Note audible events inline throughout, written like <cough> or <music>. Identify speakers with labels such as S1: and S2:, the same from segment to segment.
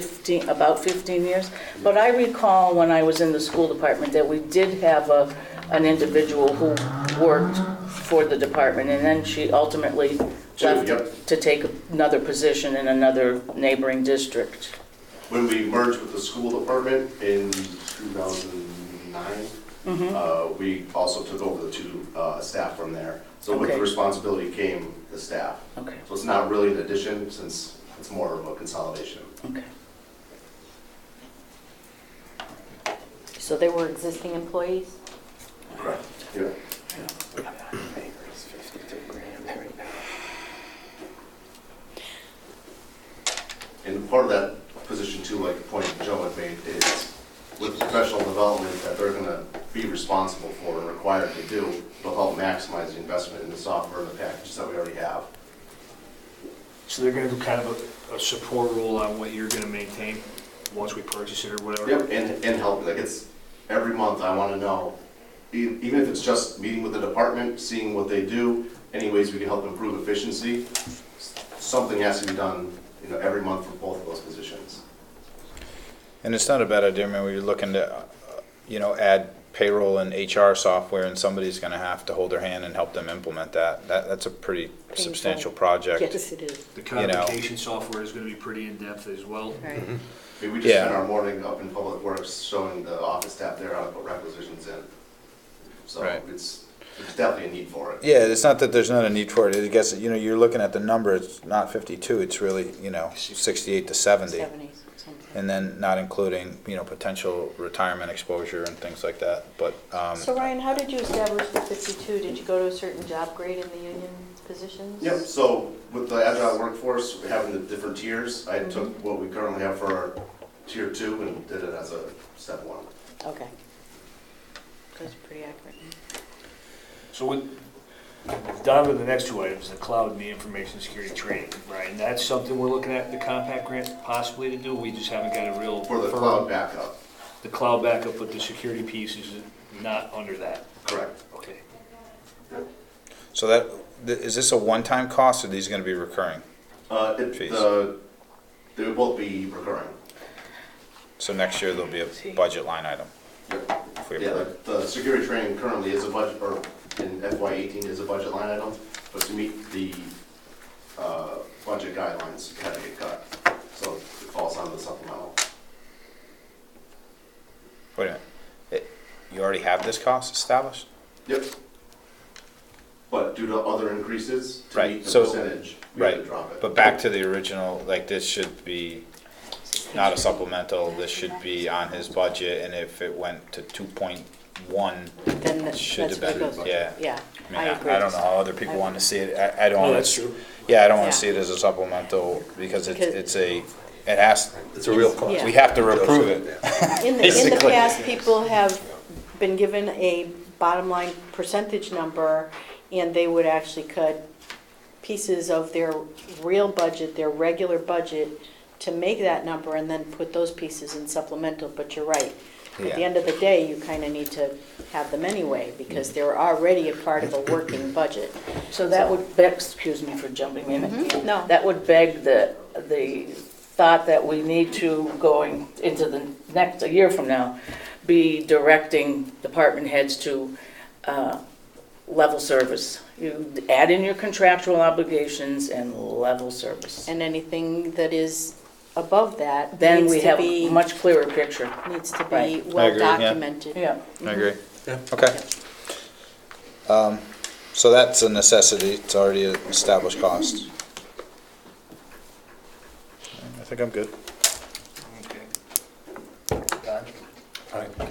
S1: 15, about 15 years. But I recall when I was in the school department that we did have a, an individual who worked for the department, and then she ultimately
S2: Two, yep.
S1: left to take another position in another neighboring district.
S2: When we merged with the school department in
S1: Hmm.
S2: 2009, uh, we also took over the two uh, staff from there. So with the
S1: Okay.
S2: responsibility came the staff.
S1: Okay,
S2: So it's not really an addition since it's more of a consolidation.
S1: okay.
S3: So they were existing employees?
S2: Correct. Yeah. And part of that position too, like the point Joe had made, is with professional development that they're gonna be responsible for and required to do, will help maximize the investment in the software and the packages that we already have.
S4: So they're gonna do kind of a, a support role on what you're gonna maintain once we purchase it or whatever?
S2: Yep, and, and help, like it's, every month I wanna know, e- even if it's just meeting with the department, seeing what they do, any ways we can help improve efficiency, s- something has to be done, you know, every month for both of those positions.
S5: And it's not a bad idea, I mean, we're looking to, uh, you know, add payroll and HR software, and somebody's gonna have to hold their hand and help them implement that. That, that's a pretty substantial project.
S3: Yes, it is.
S4: The
S5: You know.
S4: codification software is gonna be pretty in-depth as well.
S3: Right.
S2: I mean, we just spent
S5: Yeah.
S2: our morning up in Public Works showing the office staff there how to put requisitions in. So
S5: Right.
S2: it's, there's definitely a need for it.
S5: Yeah, it's not that there's not a need for it, I guess, you know, you're looking at the number, it's not fifty-two, it's really, you know, sixty-eight to seventy.
S3: Seventies, something.
S5: And then not including, you know, potential retirement exposure and things like that, but, um,
S3: So Ryan, how did you establish the fifty-two? Did you go to a certain job grade in the union positions?
S2: Yep, so with the agile workforce, we're having the different tiers, I took
S5: Mm-hmm.
S2: what we currently have for our tier two and did it as a step one.
S3: Okay. That's pretty accurate.
S4: So with, down to the next two items, the cloud and the information security training, Brian, that's something we're looking at, the compact grant possibly to do, we just haven't got a real.
S2: For the
S4: firm-
S2: cloud backup,
S4: The cloud backup, but the security piece is not under that,
S2: correct.
S4: okay?
S5: so that, th- is this a one-time cost, or these gonna be recurring?
S2: Uh, it,
S5: Jeez.
S2: the, they will be recurring.
S5: So next year, there'll be a budget line item. if we
S2: Yeah,
S5: approve.
S2: like, the security training currently is a budget, or in FY eighteen is a budget line item, but to meet the, uh, budget guidelines, it had to get cut. So it falls on the supplemental.
S5: Wait a minute. It- You already have this cost established?
S2: Yep. But due to other increases, to
S5: Right,
S2: meet the
S5: so-
S2: percentage, we had to
S5: Right,
S2: drop it.
S5: but back to the original, like, this should be not a supplemental, this should be on his budget, and if it went to two point one,
S3: Then that-
S5: Should
S3: that's
S5: have
S3: where it
S5: been,
S3: goes.
S5: yeah.
S3: Yeah,
S5: I mean,
S3: I agree.
S5: I I don't know how other people want to see it, I, I don't.
S4: No,
S5: wanna-
S4: that's true.
S5: Yeah, I don't want
S3: Yeah.
S5: to see it as a supplemental, because it's,
S3: Because-
S5: it's a, it has,
S6: It's a real cost.
S3: Yeah.
S5: we have to approve it.
S3: In the, in the
S5: Basically.
S3: past, people have been given a bottom line percentage number, and they would actually cut pieces of their real budget, their regular budget, to make that number, and then put those pieces in supplemental, but you're right. At the
S5: Yeah.
S3: end of the day, you kind of need to have them anyway, because they're already a part of a working budget.
S1: So that would, beg- excuse me for jumping in.
S3: No.
S1: That would beg the, the thought that we need to, going into the next, a year from now, be directing department heads to uh, level service. You add in your contractual obligations and level service.
S3: And anything that is above that
S1: Then
S3: needs
S1: we
S3: to
S1: have
S3: be,
S1: a much clearer picture.
S3: needs to
S1: Right. I
S3: be
S1: agree,
S3: well
S5: yeah.
S3: documented.
S1: Yeah.
S5: I agree. Okay. Um, so that's a necessity, it's already an established cost. I think I'm good.
S4: Okay. Don?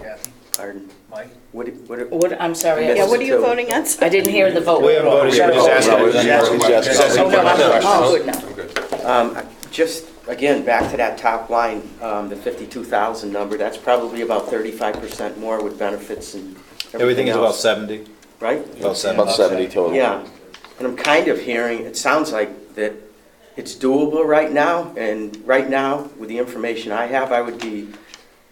S4: Kathy?
S6: Pardon?
S4: Mike?
S6: What, what,
S1: What, I'm sorry,
S3: Yeah,
S1: I-
S3: what are you
S6: Yes, so-
S3: voting on?
S1: <laughs> I didn't hear the vote.
S5: We haven't voted yet, we're just asking.
S6: No, we're just- we're just-
S5: Just asking
S1: Oh, no, I'm-
S5: questions.
S1: oh, good now.
S6: um, just, again, back to that top line, um, the fifty-two thousand number, that's probably about thirty-five percent more with benefits and
S5: Everything
S6: everything
S5: is about
S6: else,
S5: seventy.
S6: right?
S5: About
S7: About 70 total.
S6: Yeah, and I'm kind of hearing, it sounds like that it's doable right now, and right now, with the information I have, I would be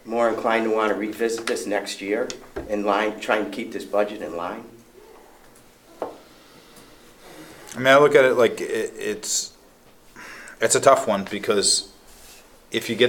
S6: more inclined to want to revisit this next year in line, try and keep this budget in line.
S5: I mean, I look at it like it, it's, it's a tough one because if you get